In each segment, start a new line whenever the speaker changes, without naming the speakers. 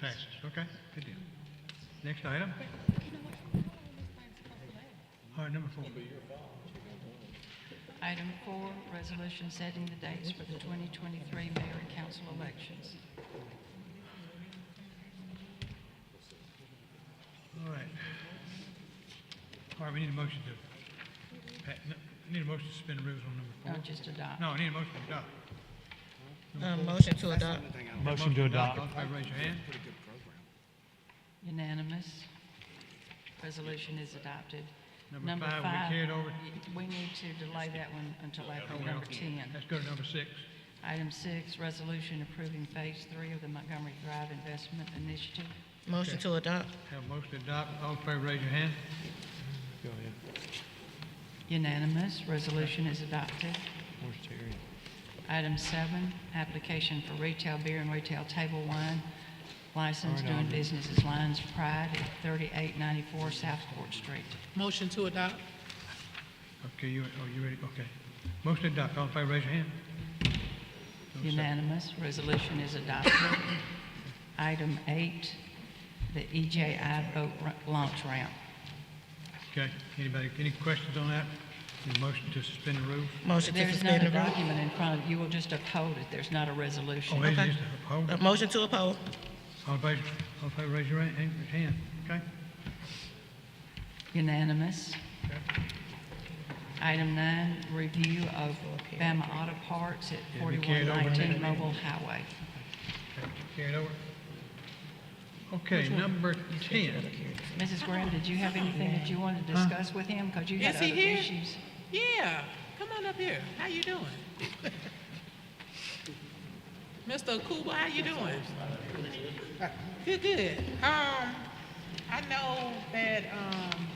Passed, okay, good deal. Next item? All right, number four.
Item four, resolution setting the dates for the 2023 mayor and council elections.
All right. All right, we need a motion to, pa- no, I need a motion to suspend the rules on number
Not
four.
just adopt.
No, I need a motion to adopt.
Uh, motion to adopt.
Motion to adopt.
All in favor, raise your hand.
Unanimous. Resolution is adopted.
Number five, we carried over.
We need to delay that one until after number 10.
Let's go to number six.
Item six, resolution approving phase three of the Montgomery Drive Investment Initiative.
Motion to adopt.
Have a motion to adopt, all in favor, raise your hand.
Unanimous. Resolution is adopted. Item seven, application for retail beer and retail table wine license doing business as Lions Pride at 3894 South Court Street.
Motion to adopt.
Okay, you, oh, you ready, okay. Motion to adopt, all in favor, raise your hand.
Unanimous. Resolution is adopted. Item eight, the EJI boat ra- launch ramp.
Okay, anybody, any questions on that? Need a motion to suspend the rules?
Motion to
There's not
suspend
a
the rules.
document in front of you. You will just uphold it. There's not a resolution.
Oh, it
Okay.
is, hold
Uh,
it.
Motion to oppose.
All in favor, all in favor, raise your hand, hand, okay?
Unanimous.
Okay.
Item nine, review of Bama Auto Parts at
Yeah, we carried over that.
4119 Mobile Highway.
Okay, Carry it over. Okay, number ten.
Mrs. Graham, did you have anything that you wanted to discuss with him? Because you had
Is
other
he here?
issues.
Yeah, come on up here. How you doing? Mr. Okuba, how you doing? Good, good. Um, I know that, um,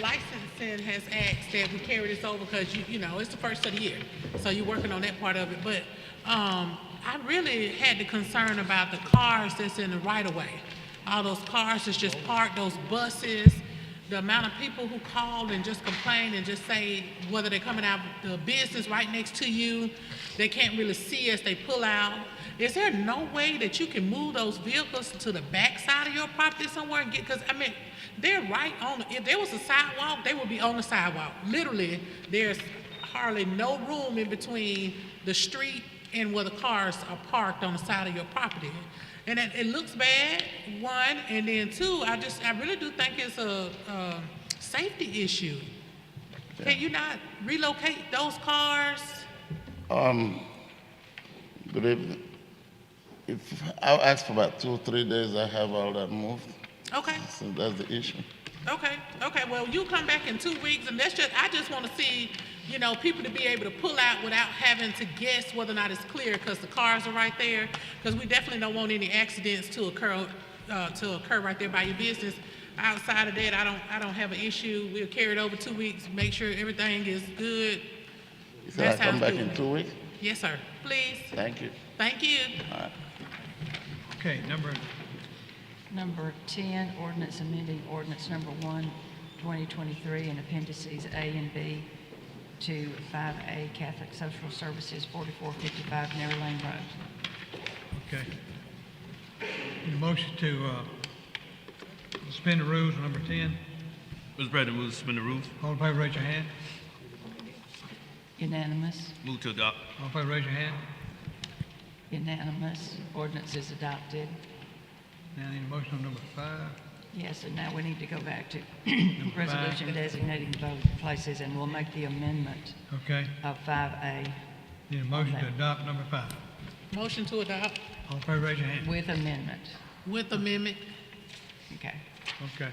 licensing has asked that we carry this over because you, you know, it's the first of the year. So you're working on that part of it, but, um, I really had the concern about the cars that's in the right of way. All those cars that's just parked, those buses, the amount of people who call and just complain and just say whether they're coming out the business right next to you, they can't really see us, they pull out. Is there no way that you can move those vehicles to the backside of your property somewhere and get, because, I mean, they're right on, if there was a sidewalk, they would be on the sidewalk. Literally, there's hardly no room in between the street and where the cars are parked on the side of your property. And it, it looks bad, one, and then two, I just, I really do think it's a, a safety issue. Can you not relocate those cars?
Good evening. If I ask for about two or three days, I have all that moved.
Okay.
So that's the issue.
Okay, okay, well, you come back in two weeks, and that's just, I just wanna see, you know, people to be able to pull out without having to guess whether or not it's clear, because the cars are right there, because we definitely don't want any accidents to occur, uh, to occur right there by your business. Outside of that, I don't, I don't have an issue, we'll carry it over two weeks, make sure everything is good.
You said
That
I
sounds
come back
good.
in two weeks?
Yes, sir, please,
Thank you.
thank you.
Okay, number,
Number 10, ordinance amending ordinance number 1, 2023, and appendices A and B to 5A Catholic Social Services, 4455 Narrow Lane Road.
okay. Need a motion to, uh, suspend the rules on number ten.
Mr. President, move to suspend the rules.
All in favor, raise your hand.
Unanimous,
Move to adopt.
All in favor, raise your hand.
unanimous. Ordinance is adopted.
Now I need a motion on number five.
Yes, and now we need to go back to
five.
resolution designating voting places, and we'll make the amendment
Okay,
of 5A
need a motion to adopt number five.
Motion to adopt
All in favor, raise your hand.
with amendment.
with amendment.
Okay.
Okay.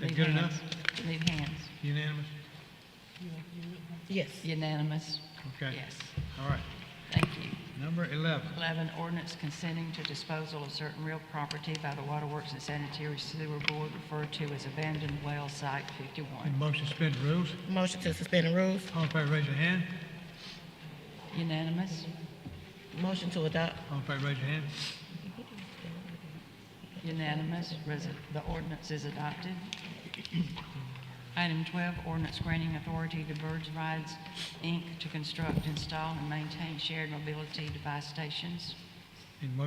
That
Leave
good enough?
hands. Leave hands.
Unanimous?
Yes.
Unanimous?
Okay.
Yes,
All right.
thank you.
Number eleven.
11, ordinance consenting to disposal of certain real property by the Waterworks and Sanitary Sewer Board referred to as abandoned well site 51.
Need a motion to suspend the rules.
Motion to suspend the rules.
All in favor, raise your hand.
Unanimous?
Motion to adopt.
All in favor, raise your hand.
Unanimous, Resi- the ordinance is adopted. Item 12, ordinance granting authority to Birds Rides, Inc. to construct, install, and maintain shared mobility device stations.
Need a motion